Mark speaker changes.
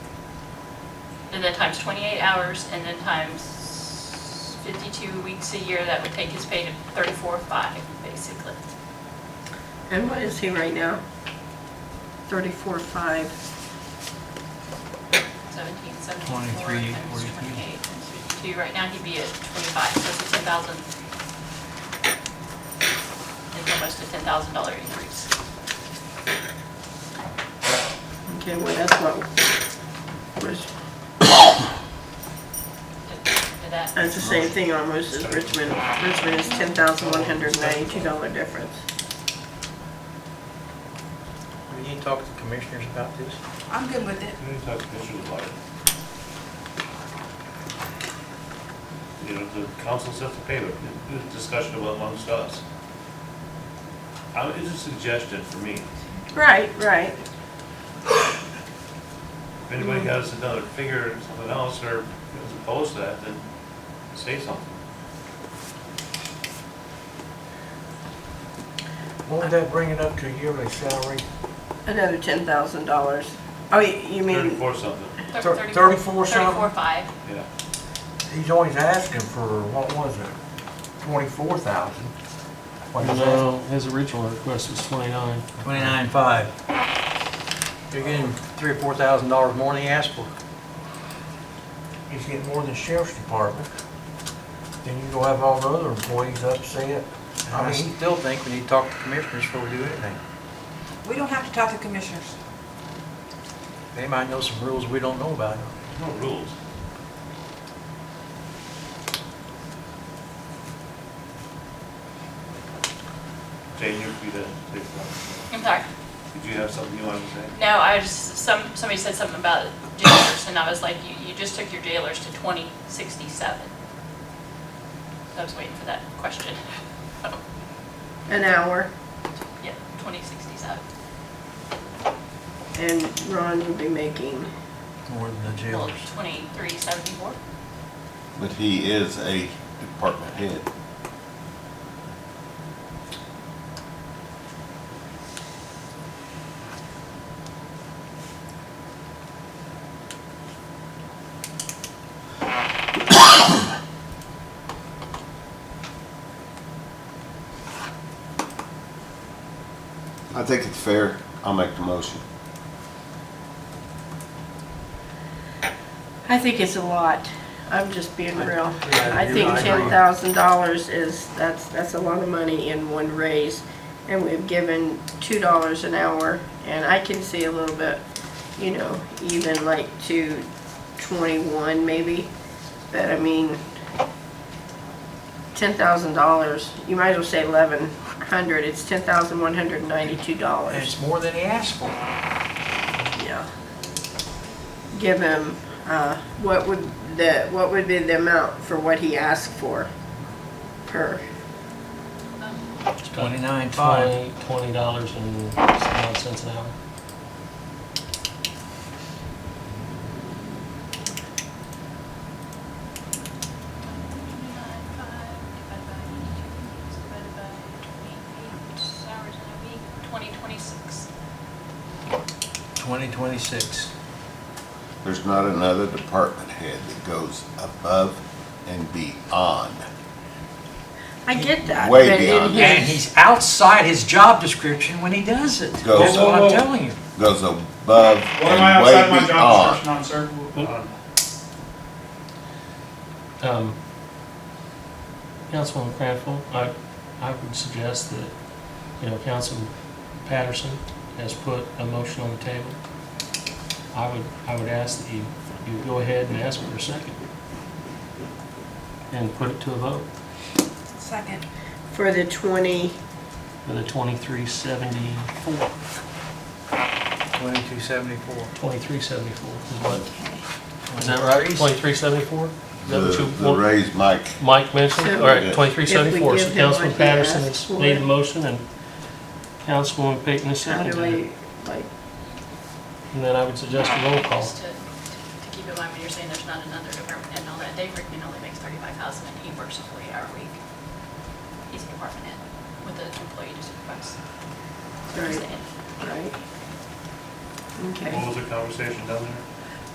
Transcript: Speaker 1: and then times 28 hours, and then times 52 weeks a year, that would take his pay to 34.5, basically.
Speaker 2: And what is he right now? Thirty-four, five.
Speaker 1: 17, 74 times
Speaker 3: 23,
Speaker 1: 28
Speaker 3: 43.
Speaker 1: times 52. Right now, he'd be at 25, so it's a 10,000. It's almost a $10,000 increase.
Speaker 2: Okay, well, that's what was,
Speaker 1: Did- did that-
Speaker 2: that's the same thing almost as Richmond. Richmond is ten thousand one hundred ninety-two dollar difference.
Speaker 4: Will you talk to commissioners about this?
Speaker 5: I'm good with it.
Speaker 6: Any type of issues like it. You know, the councils have to pay, but the the discussion about amongst us. I mean, it's a suggestion for me.
Speaker 2: Right, right.
Speaker 6: If anybody has another figure or something else, or is opposed to that, then say something.
Speaker 4: Won't that bring it up to yearly salary?
Speaker 2: Another ten thousand dollars. Oh, you you mean,
Speaker 6: Thirty-four something,
Speaker 1: Thir-
Speaker 4: Thir- 34 something?
Speaker 1: 34.5.
Speaker 6: yeah.
Speaker 4: He's always asking for, what was it, twenty-four thousand?
Speaker 7: No, his original request was 29.
Speaker 3: Twenty-nine five.
Speaker 8: You're getting three or four thousand dollars more than you asked for.
Speaker 4: He's getting more than the sheriff's department. Then you go have all the other employees upset. And
Speaker 8: I
Speaker 4: I
Speaker 8: mean,
Speaker 4: mean,
Speaker 8: still think we need to talk to commissioners before we do anything.
Speaker 5: We don't have to talk to commissioners.
Speaker 8: They might know some rules we don't know about.
Speaker 6: No rules. Jane, you're free to take that.
Speaker 1: I'm sorry.
Speaker 6: Did you have something you wanted to say?
Speaker 1: No, I just, some, somebody said something about jailers, and I was like, you, you just took your jailers to twenty sixty-seven. I was waiting for that question.
Speaker 2: an hour?
Speaker 1: Yeah, twenty sixty-seven.
Speaker 2: And Ron would be making,
Speaker 8: More than the
Speaker 1: Well,
Speaker 8: jailers.
Speaker 1: twenty-three seventy-four.
Speaker 9: But he is a department head. I think it's fair. I'll make the motion.
Speaker 2: I think it's a lot. I'm just being real.
Speaker 8: Yeah,
Speaker 2: I
Speaker 8: you're
Speaker 2: think
Speaker 8: right.
Speaker 2: ten thousand dollars is, that's, that's a lot of money in one raise. And we've given two dollars an hour, and I can see a little bit, you know, even like to twenty-one maybe. But I mean, ten thousand dollars, you might as well say eleven hundred, it's ten thousand one hundred ninety-two
Speaker 8: And
Speaker 2: dollars,
Speaker 8: it's more than he asked for.
Speaker 2: yeah. Give him, uh, what would the, what would be the amount for what he asked for per?
Speaker 3: It's twenty-nine five.
Speaker 7: 20, $20 and some odd cents an hour.
Speaker 1: Twenty twenty-six.
Speaker 8: Twenty twenty-six.
Speaker 9: There's not another department head that goes above and beyond.
Speaker 2: I get that.
Speaker 9: Way
Speaker 2: but it-
Speaker 9: beyond that.
Speaker 8: And he's outside his job description when he does it.
Speaker 9: Go.
Speaker 8: That's what I'm telling you.
Speaker 9: Goes above
Speaker 6: What am I
Speaker 9: and
Speaker 6: outside my
Speaker 9: way
Speaker 6: job
Speaker 9: beyond.
Speaker 6: description on, sir?
Speaker 7: Um, Councilman Craftwell, I, I would suggest that, you know, Councilman Patterson has put a motion on the table. I would, I would ask that you, you go ahead and ask for a second and put it to a vote
Speaker 5: Second.
Speaker 2: For the twenty,
Speaker 7: for the 2374,
Speaker 8: Twenty-two seventy-four.
Speaker 7: 2374 is what, is that right? 2374? Is that what
Speaker 9: The,
Speaker 7: you
Speaker 9: the
Speaker 7: want?
Speaker 9: raise Mike,
Speaker 7: Mike mentioned,
Speaker 2: So-
Speaker 7: all right,
Speaker 9: Yeah.
Speaker 7: twenty-three seventy-four,
Speaker 2: If we give
Speaker 7: so
Speaker 2: him
Speaker 7: Councilman
Speaker 2: what he asked
Speaker 7: Patterson has
Speaker 2: for.
Speaker 7: made the motion, and Councilwoman Peyton has
Speaker 2: how do
Speaker 7: seconded
Speaker 2: we,
Speaker 7: it.
Speaker 2: like,
Speaker 7: And then I would suggest a roll call.
Speaker 1: Just to, to keep in mind when you're saying there's not another department head and all that, Dave Rickman only makes thirty-five thousand and he works a forty-hour week. He's a department head with an employee to supervise.
Speaker 2: right, right? Okay.
Speaker 6: What was the conversation down there?